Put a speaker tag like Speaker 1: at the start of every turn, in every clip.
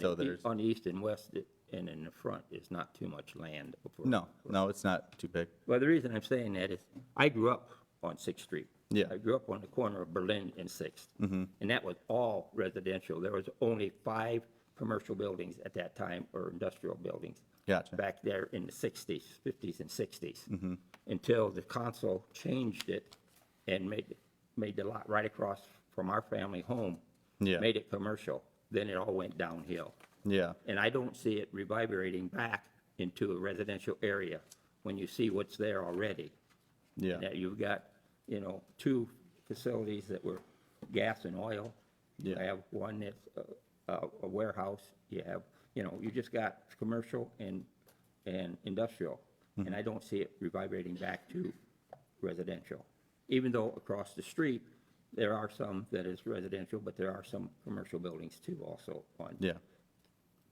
Speaker 1: So there's,
Speaker 2: On the east and west it- and in the front is not too much land. for-
Speaker 1: no, no, it's not too big.
Speaker 2: Well, the reason I'm saying that is I grew up on Sixth Street.
Speaker 1: Yeah. Mm-hmm.
Speaker 2: I grew up on the corner of Berlin and Sixth. And that was all residential. There was only five commercial buildings at that time or industrial buildings.
Speaker 1: Gotcha. Mm-hmm.
Speaker 2: Back there in the sixties, fifties and 60s Until the council changed it and made, made the lot right across from our family home.
Speaker 1: Yeah.
Speaker 2: Made it commercial. Then it all went downhill.
Speaker 1: Yeah,
Speaker 2: And I don't see it reverberating back into a residential area when you see what's there already.
Speaker 1: yeah,
Speaker 2: That you've got, you know, two facilities that were gas and oil. You
Speaker 1: Yeah.
Speaker 2: have one that's a- a a warehouse, you have, you know, you just got commercial and, and industrial.
Speaker 1: Mm-hmm.
Speaker 2: And I don't see it reverberating back to residential. Even though across the street, there are some that is residential, but there are some commercial buildings too also on
Speaker 1: yeah,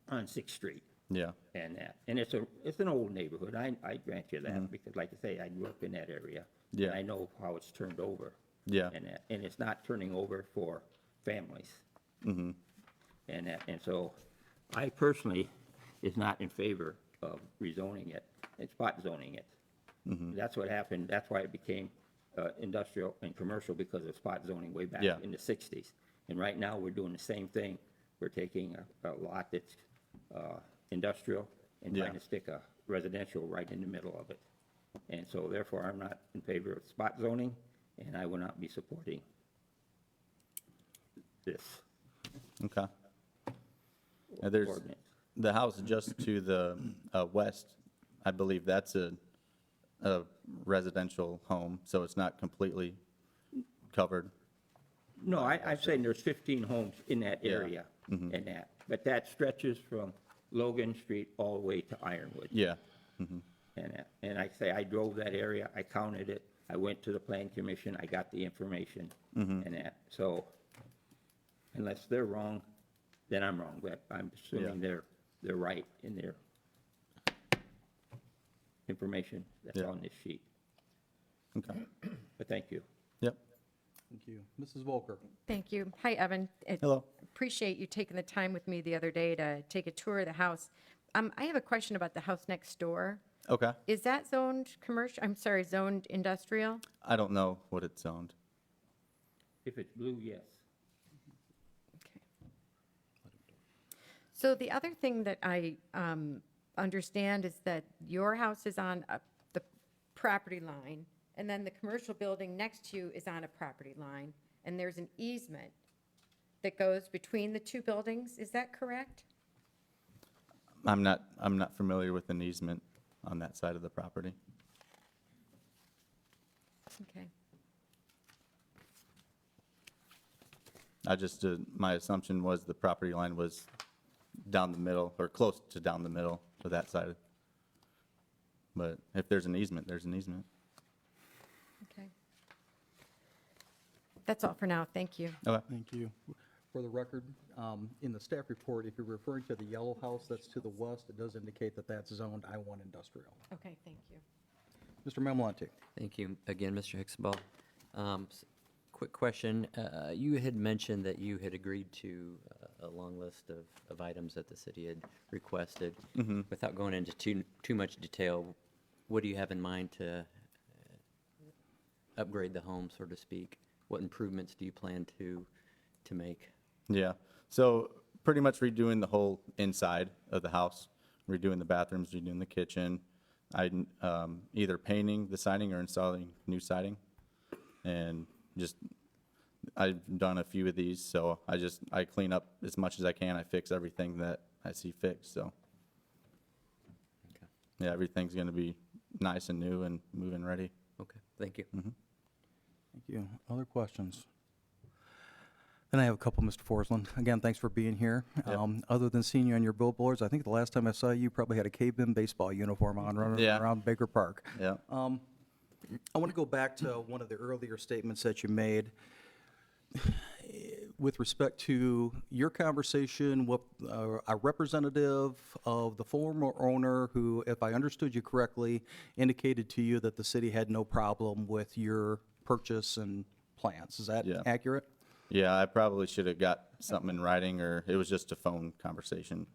Speaker 2: on Sixth Street
Speaker 1: yeah,
Speaker 2: and that. And it's a, it's an old neighborhood, I, I grant you that, because like I say, I grew up in that area. and
Speaker 1: Mm-hmm. Yeah.
Speaker 2: I know how it's turned over.
Speaker 1: Yeah.
Speaker 2: And that, and it's not turning over for families.
Speaker 1: Mm-hmm.
Speaker 2: And that, and so I personally is not in favor of rezoning it, and spot zoning it.
Speaker 1: Mm-hmm.
Speaker 2: That's what happened, that's why it became uh, industrial and commercial because of spot zoning way back
Speaker 1: Yeah.
Speaker 2: in the sixties. And right now, we're doing the same thing. We're taking a, a lot that's uh, industrial and trying
Speaker 1: Yeah.
Speaker 2: to stick a residential right in the middle of it. And so therefore, I'm not in favor of spot zoning, and I will not be supporting this
Speaker 1: okay. Now, there's,
Speaker 2: ordinance.
Speaker 1: the house just to the uh, west, I believe that's a, a residential home, so it's not completely covered.
Speaker 2: No, I, I'm saying there's 15 homes in that area
Speaker 1: Mm-hmm.
Speaker 2: and that, but that stretches from Logan Street all the way to Ironwood.
Speaker 1: Yeah,
Speaker 2: And, that- and I say, I drove that area, I counted it, I went to the plan commission, I got the information and that, so unless they're wrong, then I'm wrong, but I'm assuming they're, they're right in their information that's
Speaker 1: Yeah.
Speaker 2: on this sheet,
Speaker 1: okay,
Speaker 2: but thank you.
Speaker 1: yep,
Speaker 3: Thank you. Mrs. Volker?
Speaker 4: Thank you. Hi, Evan. I
Speaker 1: Hello.
Speaker 4: Appreciate you taking the time with me the other day to take a tour of the house. Um, I have a question about the house next door.
Speaker 1: okay.
Speaker 4: Is that zoned commercial? I'm sorry, zoned industrial?
Speaker 1: I don't know what it's zoned.
Speaker 2: If it's blue, yes.
Speaker 4: Okay. So the other thing that I um, understand is that your house is on a- the property line, and then the commercial building next to you is on a property line, and there's an easement that goes between the two buildings. Is that correct?
Speaker 1: I'm not, I'm not familiar with an easement on that side of the property.
Speaker 4: Okay.
Speaker 1: I just, uh, my assumption was the property line was down the middle, or close to down the middle of that side. But if there's an easement, there's an easement.
Speaker 4: Okay. That's all for now. Thank you.
Speaker 1: Okay,
Speaker 3: Thank you. For the record, um, in the staff report, if you're referring to the yellow house that's to the west, it does indicate that that's zoned I-1 industrial.
Speaker 4: Okay, thank you.
Speaker 3: Mr. Mamalante?
Speaker 5: Thank you again, Mr. Hicksaball. Um, s- Quick question. uh, You had mentioned that you had agreed to uh, a long list of, of items that the city had requested. Without going into too, too much detail, what do you have in mind to uh, upgrade the home, so to speak? What improvements do you plan to, to make?
Speaker 1: yeah. So pretty much redoing the whole inside of the house, redoing the bathrooms, redoing the kitchen. I, um, either painting the siding or installing new siding. And just, I've done a few of these, so I just, I clean up as much as I can. I fix everything that I see fixed, so.
Speaker 5: Okay.
Speaker 1: Yeah, everything's gonna be nice and new and moving ready.
Speaker 5: Okay, thank you.
Speaker 3: Thank you. Other questions? Then I have a couple, Mr. Forsland. Again, thanks for being here. Um, Other than seeing you on your billboards, I think the last time I saw you, you probably had a caveman baseball uniform on running
Speaker 1: Yeah.
Speaker 3: around Baker Park.
Speaker 1: Yeah,
Speaker 3: I want to go back to one of the earlier statements that you made eh, with respect to your conversation with uh, a representative of the former owner who, if I understood you correctly, indicated to you that the city had no problem with your purchase and plans. Is that
Speaker 1: Yeah.
Speaker 3: accurate?
Speaker 1: Yeah, I probably should have got something in writing, or it was just a phone conversation.